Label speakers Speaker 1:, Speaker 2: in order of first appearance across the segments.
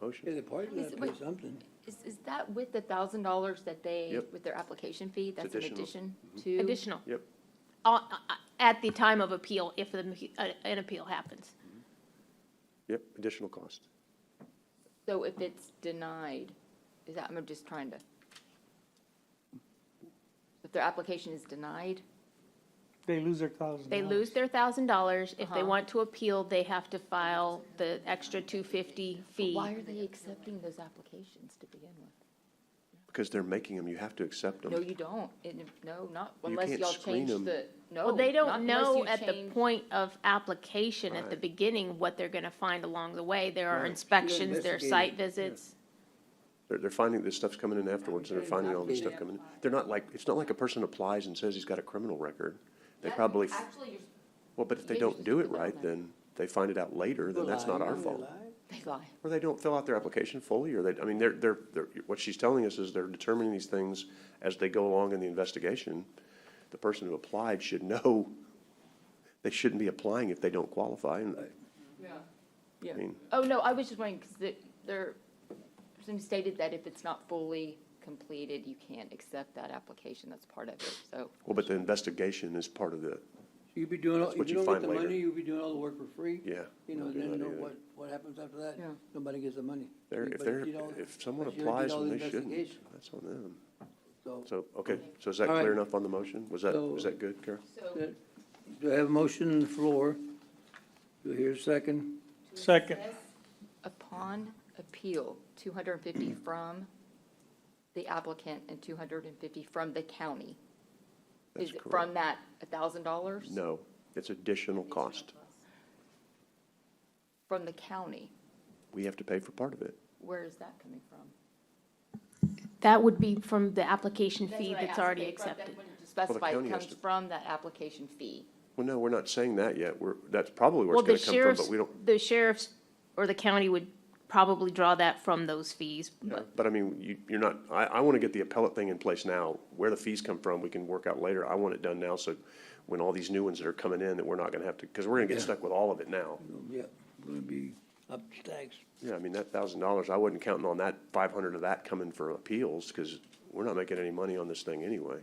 Speaker 1: Motion?
Speaker 2: Yeah, the parking lot
Speaker 3: Is-
Speaker 2: pay
Speaker 3: wait.
Speaker 2: something.
Speaker 3: Is, is that with the thousand dollars that they,
Speaker 1: Yep.
Speaker 3: with their application fee? That's an
Speaker 1: additional. Mm-hmm.
Speaker 3: addition to?
Speaker 4: Additional.
Speaker 1: Yep.
Speaker 4: On- uh, At the time of appeal, if the- uh, an appeal happens.
Speaker 1: Yep, additional cost.
Speaker 3: So if it's denied, is that, I'm just trying to. If their application is denied,
Speaker 5: They lose their thousand
Speaker 4: They lose their thousand dollars. If they
Speaker 3: Uh-huh.
Speaker 4: want to appeal, they have to file the extra two fifty fee.
Speaker 3: why are they accepting those applications to begin with?
Speaker 1: Because they're making them, you have to accept them.
Speaker 3: No, you don't. And if- No, not
Speaker 1: You
Speaker 3: unless
Speaker 1: can't
Speaker 3: y'all
Speaker 1: screen
Speaker 3: change
Speaker 1: 'em.
Speaker 3: the, no.
Speaker 4: Well, they
Speaker 3: not
Speaker 4: don't
Speaker 3: unless
Speaker 4: know
Speaker 3: you
Speaker 4: at the
Speaker 3: change-
Speaker 4: point of application, at the
Speaker 1: Right.
Speaker 4: beginning, what they're gonna find along the way. There are
Speaker 2: Right.
Speaker 4: inspections, there are
Speaker 2: Investigate
Speaker 4: site
Speaker 2: it, yeah.
Speaker 4: visits.
Speaker 1: They're, they're finding this stuff's coming in afterwards, and they're finding all this stuff coming in. They're not like, it's not like a person applies and says he's got a criminal record. They
Speaker 3: That-
Speaker 1: probably,
Speaker 3: Actually, you're-
Speaker 1: well, but if they
Speaker 3: maybe
Speaker 1: don't
Speaker 3: just
Speaker 1: do
Speaker 3: put
Speaker 1: it
Speaker 3: that on
Speaker 1: right,
Speaker 3: there.
Speaker 1: then they find it out later, then that's not our fault.
Speaker 3: they lie.
Speaker 1: Or they don't fill out their application fully, or they, I mean, they're, they're, they're, what she's telling us is they're determining these things as they go along in the investigation. The person who applied should know they shouldn't be applying if they don't qualify, and,
Speaker 3: Yeah.
Speaker 1: I mean,
Speaker 3: Oh, no, I was just wondering, because there, somebody stated that if it's not fully completed, you can't accept that application, that's part of it, so.
Speaker 1: well, but the investigation is part of the,
Speaker 2: You'd be doing, all
Speaker 1: That's
Speaker 2: if
Speaker 1: what
Speaker 2: you
Speaker 1: you
Speaker 2: don't get
Speaker 1: find
Speaker 2: the
Speaker 1: later.
Speaker 2: money, you'll be doing all the work for free.
Speaker 1: Yeah,
Speaker 2: You know,
Speaker 1: don't do
Speaker 2: then
Speaker 1: that
Speaker 2: no-
Speaker 1: either.
Speaker 2: what, what happens after that?
Speaker 3: Yeah.
Speaker 2: Nobody gets the money.
Speaker 1: there, if
Speaker 2: But
Speaker 1: they're,
Speaker 2: you don't-
Speaker 1: if someone
Speaker 2: but you don't do
Speaker 1: applies
Speaker 2: all
Speaker 1: and
Speaker 2: the
Speaker 1: they shouldn't,
Speaker 2: investigation,
Speaker 1: that's on them.
Speaker 2: So,
Speaker 1: So, okay, so is that
Speaker 2: All right.
Speaker 1: clear enough on the motion? Was that, was
Speaker 2: So-
Speaker 1: that good, Carol?
Speaker 2: that- do I have a motion on the floor? Do I hear a second?
Speaker 5: Second.
Speaker 3: Upon appeal, two hundred and fifty from the applicant and two hundred and fifty from the county.
Speaker 1: That's
Speaker 3: Is it
Speaker 1: correct.
Speaker 3: from that a thousand dollars?
Speaker 1: No, it's additional cost.
Speaker 3: From the county,
Speaker 1: We have to pay for part of it.
Speaker 3: where is that coming from?
Speaker 4: That would be from the application fee that's already accepted.
Speaker 3: Specify
Speaker 1: county
Speaker 3: it
Speaker 1: has
Speaker 3: comes
Speaker 1: to-
Speaker 3: from that application fee.
Speaker 1: Well, no, we're not saying that yet. We're, that's probably where
Speaker 4: Well,
Speaker 1: it's
Speaker 4: the
Speaker 1: gonna come from,
Speaker 4: sheriff's,
Speaker 1: but we don't,
Speaker 4: the sheriff's or the county would probably draw that from those fees. but-
Speaker 1: But I mean, you, you're not, I, I want to get the appellate thing in place now. Where the fees come from, we can work out later. I want it done now, so when all these new ones that are coming in, that we're not going to have to, because we're going to get
Speaker 2: Yeah.
Speaker 1: stuck with all of it now.
Speaker 2: Yeah, gonna be up to tax.
Speaker 1: Yeah, I mean, that thousand dollars, I wasn't counting on that five hundred of that coming for appeals, because we're not making any money on this thing anyway.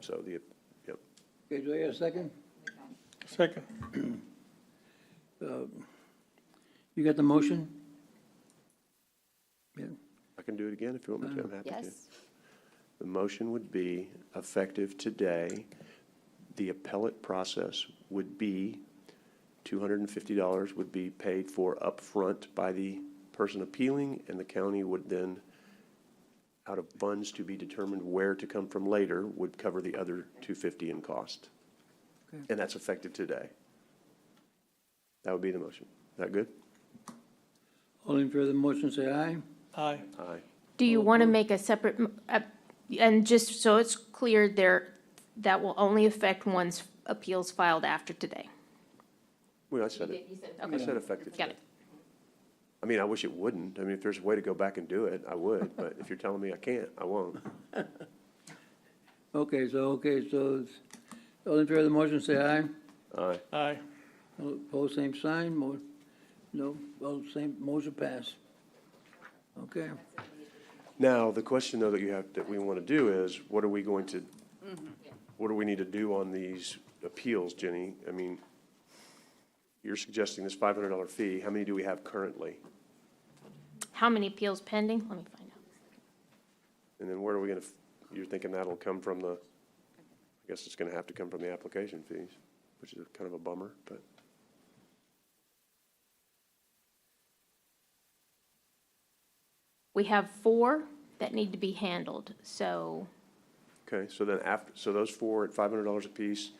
Speaker 1: So the, yep,
Speaker 2: Okay, do I hear a second?
Speaker 5: Second.
Speaker 2: You got the motion? Yeah,
Speaker 1: I can do it again if you want me to, I'm happy to.
Speaker 3: Yes?
Speaker 1: The motion would be effective today. The appellate process would be two hundred and fifty dollars would be paid for upfront by the person appealing, and the county would then, out of funds to be determined where to come from later, would cover the other two fifty in cost.
Speaker 2: Okay.
Speaker 1: And that's effective today. That would be the motion. Is that good?
Speaker 2: all in favor of the motion, say aye.
Speaker 5: Aye.
Speaker 1: Aye.
Speaker 4: Do you want to make a separate, m- uh, and just so it's clear, there, that will only affect one's appeals filed after today?
Speaker 1: Well, I said it. I said effective today.
Speaker 4: Got it.
Speaker 1: I mean, I wish it wouldn't. I mean, if there's a way to go back and do it, I would, but if you're telling me I can't, I won't.
Speaker 2: Okay, so, okay, so, it's- all in favor of the motion, say aye.
Speaker 1: Aye.
Speaker 5: Aye.
Speaker 2: All Opposed, same sign, mo, no, well, same, motion pass. Okay,
Speaker 1: Now, the question though that you have, that we want to do is, what are we going to, what do we need to do on these appeals, Jenny? I mean, you're suggesting this five hundred dollar fee. How many do we have currently?
Speaker 4: How many appeals pending? Let me find out.
Speaker 1: And then where are we going to, you're thinking that'll come from the, I guess it's going to have to come from the application fees, which is kind of a bummer, but.
Speaker 4: We have four that need to be handled, so
Speaker 1: Okay, so then after, so those four at five hundred dollars apiece,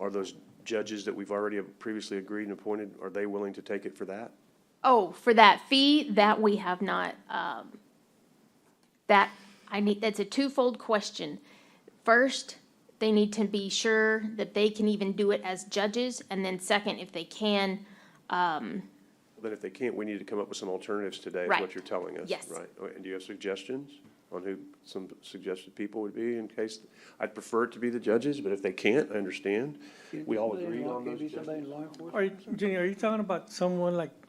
Speaker 1: are those judges that we've already previously agreed and appointed, are they willing to take it for that?
Speaker 4: Oh, for that fee, that we have not, um, that, I need, that's a twofold question. First, they need to be sure that they can even do it as judges, and then second, if they can,
Speaker 1: Then if they can't, we need to come up with some alternatives today, is
Speaker 4: Right.
Speaker 1: what you're telling us,
Speaker 4: Yes.
Speaker 1: right? Oh, And do you have suggestions on who some suggested people would be in case, I'd prefer it to be the judges, but if they can't, I understand. We all
Speaker 2: Somebody in
Speaker 1: agreed
Speaker 2: law-
Speaker 1: on
Speaker 2: can't
Speaker 1: those
Speaker 2: be somebody in
Speaker 1: judges.
Speaker 2: law enforcement?
Speaker 5: Are you, Jenny, are you talking about someone like